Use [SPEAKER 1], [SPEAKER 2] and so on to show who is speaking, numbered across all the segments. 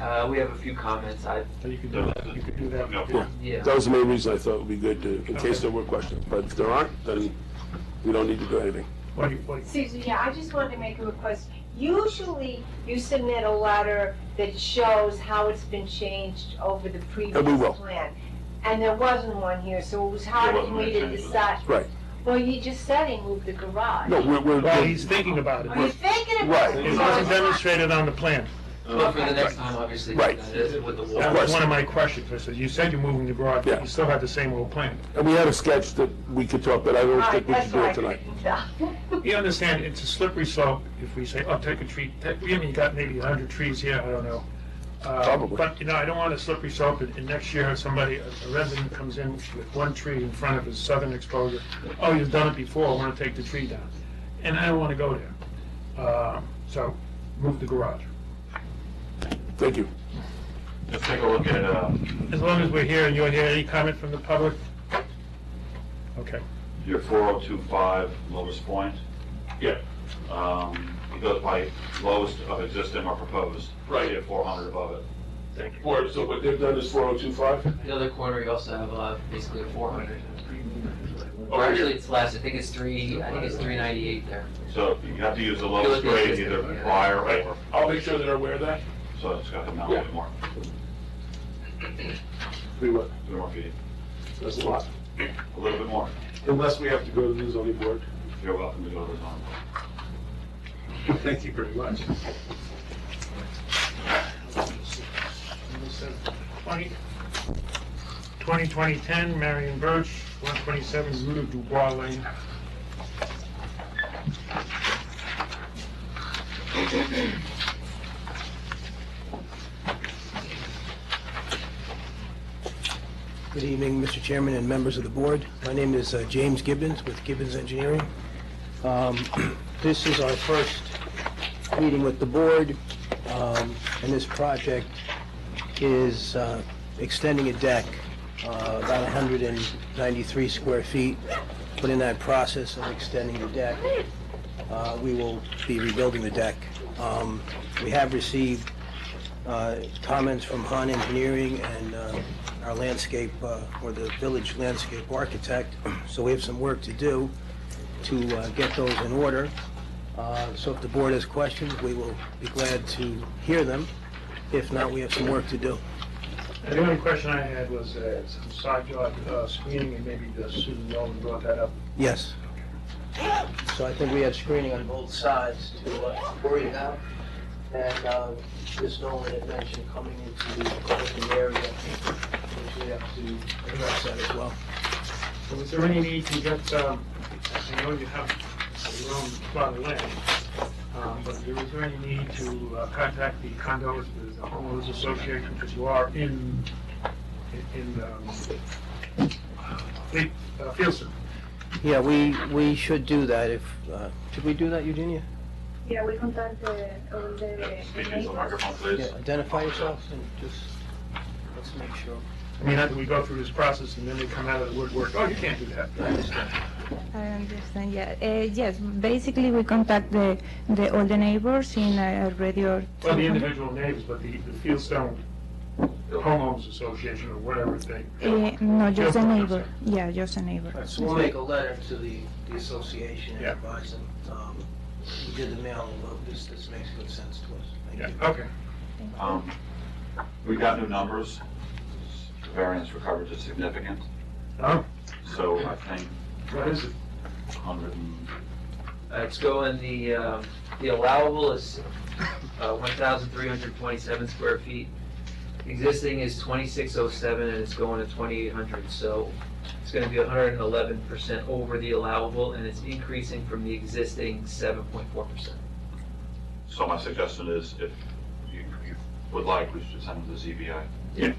[SPEAKER 1] Uh, we have a few comments. I,
[SPEAKER 2] You could do that, you could do that.
[SPEAKER 3] No.
[SPEAKER 1] yeah.
[SPEAKER 4] That was the main reason I thought it would be good to, in case there were questions. But if there aren't, then we don't need to do anything.
[SPEAKER 2] What do you, what do you-
[SPEAKER 5] Susan, yeah, I just wanted to make a request. Usually, you submit a letter that shows how it's been changed over the previous
[SPEAKER 4] And we will.
[SPEAKER 5] plan. And there wasn't one here, so it was hard
[SPEAKER 3] There
[SPEAKER 5] for
[SPEAKER 3] wasn't any
[SPEAKER 5] me to
[SPEAKER 3] changes.
[SPEAKER 5] decide.
[SPEAKER 4] Right.
[SPEAKER 5] Well, you just said he moved the garage.
[SPEAKER 4] No, we're, we're,
[SPEAKER 2] Well, he's thinking about it.
[SPEAKER 5] Are you
[SPEAKER 2] but
[SPEAKER 5] thinking about
[SPEAKER 4] Right.
[SPEAKER 5] it?
[SPEAKER 2] It wasn't demonstrated on the plan.
[SPEAKER 1] But for the next time, obviously,
[SPEAKER 4] Right.
[SPEAKER 1] that is with the wall.
[SPEAKER 2] That
[SPEAKER 4] course.
[SPEAKER 2] was one of my questions, I said, you said you're moving the garage, but
[SPEAKER 4] Yeah.
[SPEAKER 2] you still have the same old plan.
[SPEAKER 4] and we had a sketch that we could talk, but I
[SPEAKER 5] All
[SPEAKER 4] don't
[SPEAKER 5] right,
[SPEAKER 4] think we
[SPEAKER 5] that's
[SPEAKER 4] should do
[SPEAKER 5] why I
[SPEAKER 4] it tonight.
[SPEAKER 5] couldn't tell.
[SPEAKER 2] You understand, it's a slippery slope if we say, oh, take a tree, take, we haven't got maybe a hundred trees here, I don't know. Uh,
[SPEAKER 4] Probably.
[SPEAKER 2] But, you know, I don't want a slippery slope, and, and next year, somebody, a a resident comes in with one tree in front of his southern exposure, oh, you've done it before, I wanna take the tree down, and I don't wanna go there. Uh, so, move the garage.
[SPEAKER 4] Thank you.
[SPEAKER 3] Let's take a look at, uh,
[SPEAKER 2] As long as we're here and you're here, any comment from the public? Okay.
[SPEAKER 3] your 4025 lowest point.
[SPEAKER 2] Yeah.
[SPEAKER 3] Um, It goes by lowest of existing or proposed.
[SPEAKER 6] Right.
[SPEAKER 3] You have 400 above it.
[SPEAKER 2] Thank you.
[SPEAKER 6] Or, so what they've done is four oh two five?
[SPEAKER 1] The other corner, you also have, uh, basically a four hundred. Or actually, it's less. I think it's three, I think it's three ninety-eight there.
[SPEAKER 3] So you have to use the
[SPEAKER 1] Go with
[SPEAKER 3] lowest
[SPEAKER 1] the
[SPEAKER 3] grade,
[SPEAKER 1] existing,
[SPEAKER 3] either
[SPEAKER 1] yeah.
[SPEAKER 3] prior
[SPEAKER 6] Right,
[SPEAKER 3] or,
[SPEAKER 6] I'll make sure that they're aware of that.
[SPEAKER 3] so it's got to come down a little
[SPEAKER 6] Yeah.
[SPEAKER 3] bit more,
[SPEAKER 4] We went,
[SPEAKER 3] a little more feet,
[SPEAKER 4] that's a lot.
[SPEAKER 3] a little bit more.
[SPEAKER 4] Unless we have to go to the zoning board.
[SPEAKER 3] You're welcome to go to the zone.
[SPEAKER 4] Thank you very much.
[SPEAKER 2] Twenty, twenty, twenty, ten, Marion Birch, one twenty-seven, Rue de Dubois Lane.
[SPEAKER 7] Good evening, Mr. Chairman and members of the board. My name is uh, James Gibbons with Gibbons Engineering. Um, This is our first meeting with the board, um, and this project is uh, extending a deck uh, about 193 square feet, but in that process of extending the deck, uh, we will be rebuilding the deck. Um, We have received uh, comments from Han Engineering and uh, our landscape, uh, or the village landscape architect, so we have some work to do to uh, get those in order. Uh, So if the board has questions, we will be glad to hear them. If not, we have some work to do.
[SPEAKER 2] And The only question I had was, uh, some side yard, uh, screening, and maybe the Susan Nolan brought that up.
[SPEAKER 7] Yes. So I think we have screening on both sides to uh, worry about. And uh, Ms. Nolan had mentioned coming into the open area, which we have to address that as well.
[SPEAKER 2] So Was there any need to get, um, I know you have your own plot of land, um, but there was there any need to uh, contact the condos, the homeowners association, because you are in, in, um, Fleet- uh, Fieldson?
[SPEAKER 7] Yeah, we, we should do that if, uh, should we do that, Eugenia?
[SPEAKER 8] Yeah, we contact the, all the.
[SPEAKER 3] Speak into the microphone, please.
[SPEAKER 7] Yeah, identify yourself and just, let's make sure.
[SPEAKER 2] I mean, after we go through this process and then they come out of the woodwork, oh, you can't do that.
[SPEAKER 7] I understand.
[SPEAKER 8] I understand, yeah. Uh, yes, basically we contact the, the, all the neighbors in uh, a radio.
[SPEAKER 2] Well, the individual neighbors, but the, the Fieldstone homeowners association or whatever they.
[SPEAKER 8] Uh, no, just a
[SPEAKER 2] Fieldstone, I'm
[SPEAKER 8] neighbor.
[SPEAKER 2] sorry.
[SPEAKER 8] Yeah, just a neighbor.
[SPEAKER 7] So we'll make a letter to the, the association and
[SPEAKER 2] Yeah.
[SPEAKER 7] advise them, um, we did the mailing, but this, this makes good sense to us. Thank you.
[SPEAKER 2] Yeah, okay.
[SPEAKER 3] Um, We got new numbers. The Variance for coverage is significant,
[SPEAKER 2] Oh,
[SPEAKER 3] so I think
[SPEAKER 2] what is it?
[SPEAKER 3] 100 and
[SPEAKER 1] Uh, it's going, the, um, the allowable is, uh, one thousand three hundred twenty-seven square feet. Existing is twenty-six oh seven, and it's going to twenty-eight hundred, so it's gonna be hundred and eleven percent over the allowable, and it's increasing from the existing seven point four percent.
[SPEAKER 3] So my suggestion is, if you you would like, we should send it to ZBI.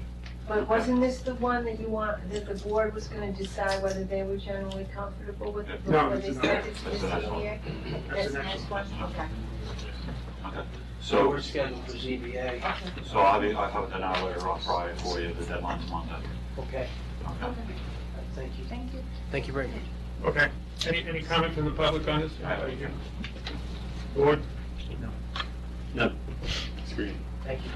[SPEAKER 5] But wasn't this the one that you want, that the board was gonna decide whether they were generally comfortable with it
[SPEAKER 2] No,
[SPEAKER 5] before
[SPEAKER 2] it's
[SPEAKER 5] they
[SPEAKER 2] not.
[SPEAKER 5] sent it to the
[SPEAKER 3] That's the next one.
[SPEAKER 5] ZBA?
[SPEAKER 2] That's the next
[SPEAKER 5] next one, okay.
[SPEAKER 7] So
[SPEAKER 3] So,
[SPEAKER 7] we're scheduled for ZBA,
[SPEAKER 3] so I'll be, I'll have it an hour later on Friday for you, the deadline's Monday.
[SPEAKER 7] okay,
[SPEAKER 3] Okay.
[SPEAKER 7] thank you.
[SPEAKER 8] Thank you.
[SPEAKER 7] Thank you very much.
[SPEAKER 2] Okay. Any, any comment from the public on this? Anybody here? Board?
[SPEAKER 7] Thank you.